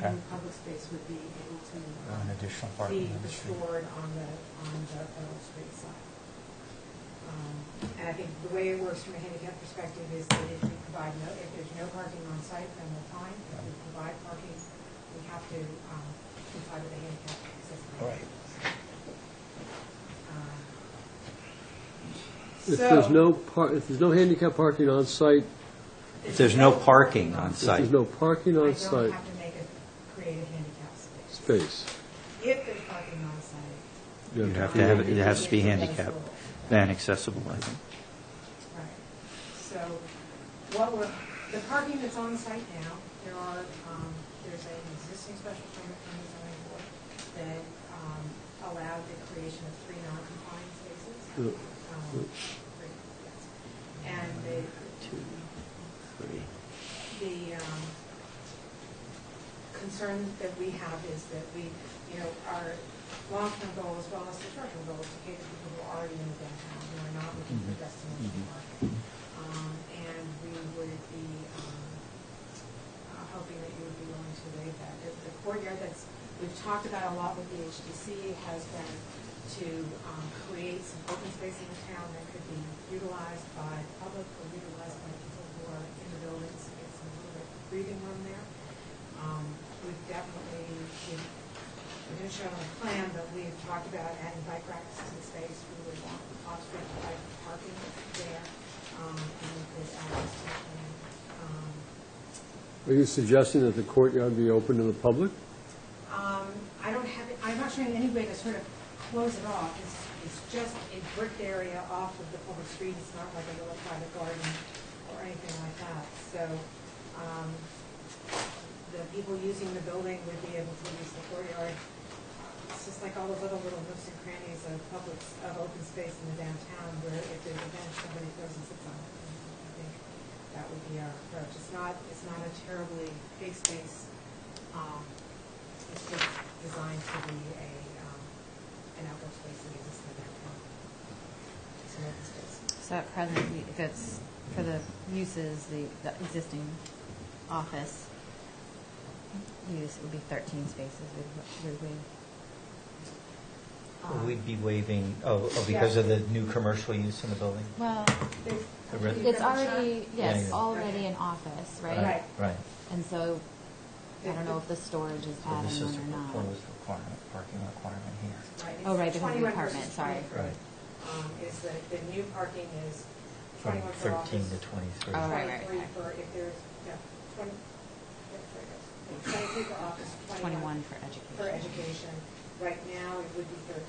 Okay. the public space would be able to Uh, um, An additional parking be on the street. restored on the, on the Earl Street side. Um, And I think the way it works from a handicap perspective is that if we provide no, if there's no parking on site, then we're fine. If we provide parking, we have to um, comply with the handicap accessibility. Right. Um, If so- there's no par, if there's no handicap parking on site, If there's no parking on if there's site, no parking I on don't site have to make a, create a handicap space. space, If there's parking on site. you you have have to, to have, it has to be Yeah. handicap and accessible, I think. Right. So what we're, the parking that's on site now, there are, um, there's an existing special permit from the zoning board that, um, allowed the creation of three non-compliant spaces. Yeah. Um, three, yes. And the, Two, three. the, um, concern that we have is that we, you know, our long-term goal as well as the short-term goal is to cater to people who are already in the downtown, who are not looking Mm-hmm. for destination parking. Um, and we would be, um, uh, hoping that you would be willing to waive that. The the courtyard that's, we've talked about a lot with the HDC has been to, um, create some open space in the town that could be utilized by the public or utilized by people who are in the buildings, to get some little bit of breathing room there. Um, we've definitely, we've, we didn't show on the plan, but we've talked about adding bike racks to the space. We would want off-street bike parking there, um, and we could add this to the plan. Um, Are you suggesting that the courtyard be open to the public? um, I don't have, it- I'm not showing any way to sort of close it off. It's, it's just a brick area off of the public street. It's not like a little private garden or anything like that. So, um, the people using the building would be able to use the courtyard. It's just like all the little, little nooks and crannies of public, of open space in the downtown where if there's a bench, somebody goes and sits on it. I think that would be our approach. It's not, it's not a terribly big space. Um, It's just designed to be a, um, an outdoor space that exists in the downtown. It's an open space. So at present, we- that's for the uses, the, the existing office use would be thirteen spaces, would, would we? Um, We'd be waiving, oh, oh, because of the new commercial use in the building? Well, there's- The red- you it's got the shot? already, Yeah, yes, yeah. already an office, Right. right? Right. And so, I don't know if the storage is Um, So this adding is a one or not. proposed requirement, parking requirement here. Right, Oh, it's right, because of the 21 apartment, versus sorry. 23, Right. um, Is that the new parking is From 21 for 13 office. to 23. Oh, right, right, 23 right. for if there's, yeah, 20, yeah, there it goes. 23 for office, 21 21 for education. for education. Right now, it would be 13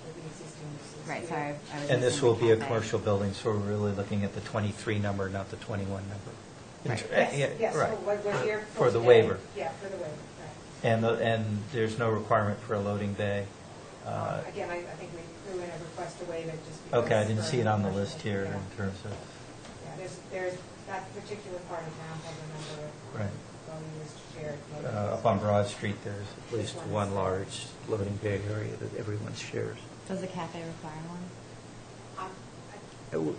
for the existing uses. Right, We- sorry, I was. And this missing will the be a cafe. commercial building, so we're really looking at the 23 number, not the 21 number. Right. Yeah, Yes, yes, right. for what we're here for. For the today. waiver. Yeah, for the waiver, right. And, the- and there's no requirement for a loading bay. Uh, Um, Again, I I think we threw in a request to waive it just because. Okay, I didn't for see it on the commercial, list here yeah. in terms of, Yeah, there's, there's, that particular part of town has a number of right. dwelling units shared. Uh, Up on Broad Street, there's at least one large loading bay area that everyone shares. Does the cafe require one? Um, Uh, w-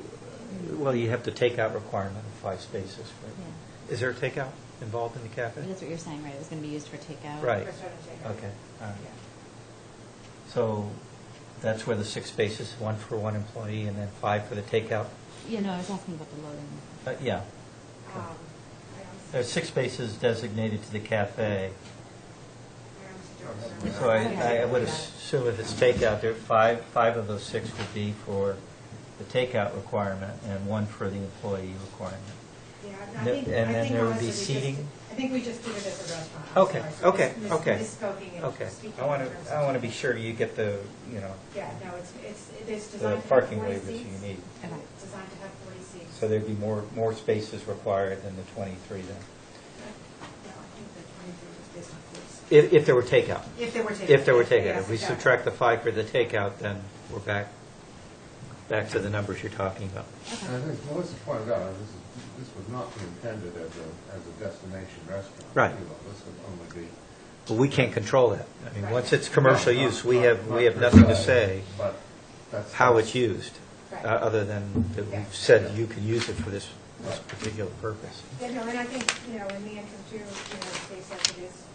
Well, you have the takeout requirement of five spaces. right? Yeah. Is there takeout involved in the cafe? But That's what you're saying, right, it was gonna be used for takeout? I- Right. restaurant and takeout. Okay, all right. Yeah. So that's where the six spaces, one for one employee and then five for the takeout? Yeah, no, I was asking about the loading. Uh, Yeah. Um, I don't see- There's six spaces designated to the cafe. I don't see George. So I, Okay. I would assume if it's takeout, there, five, five of those six would be for the takeout requirement and one for the employee requirement. Yeah, I And think, then I think there would be honestly, we just, seating? I think we just did it as a restaurant. I'm Okay, sorry. So okay, mis- okay, Misspoking and Okay, speaking. I want in terms to, of- I want to be sure you get the, you know, Yeah, no, it's, it's, it's the designed to have parking forty waivers seats. you need. Okay. It's Designed to have forty seats. So there'd be more, more spaces required than the 23 then. Yeah, I think the twenty-three was based on forty seats. If, if there were takeout. If there were takeout. If there were Yes, takeout. If we exactly. subtract the five for the takeout, then we're back, back to the numbers you're talking about. Okay. And I think Melissa pointed out, this is, this was not intended as a, as a destination restaurant. Right. You know, This would only be. But we can't control that. I mean, once it's commercial Not- use, we not- have, not we have per nothing to se, say But that's. how it's used, Right. uh, other than that Yeah. we've said you can use it for this, this particular purpose. Yeah, no, and I think, you know, in the interest too, you know, space like it is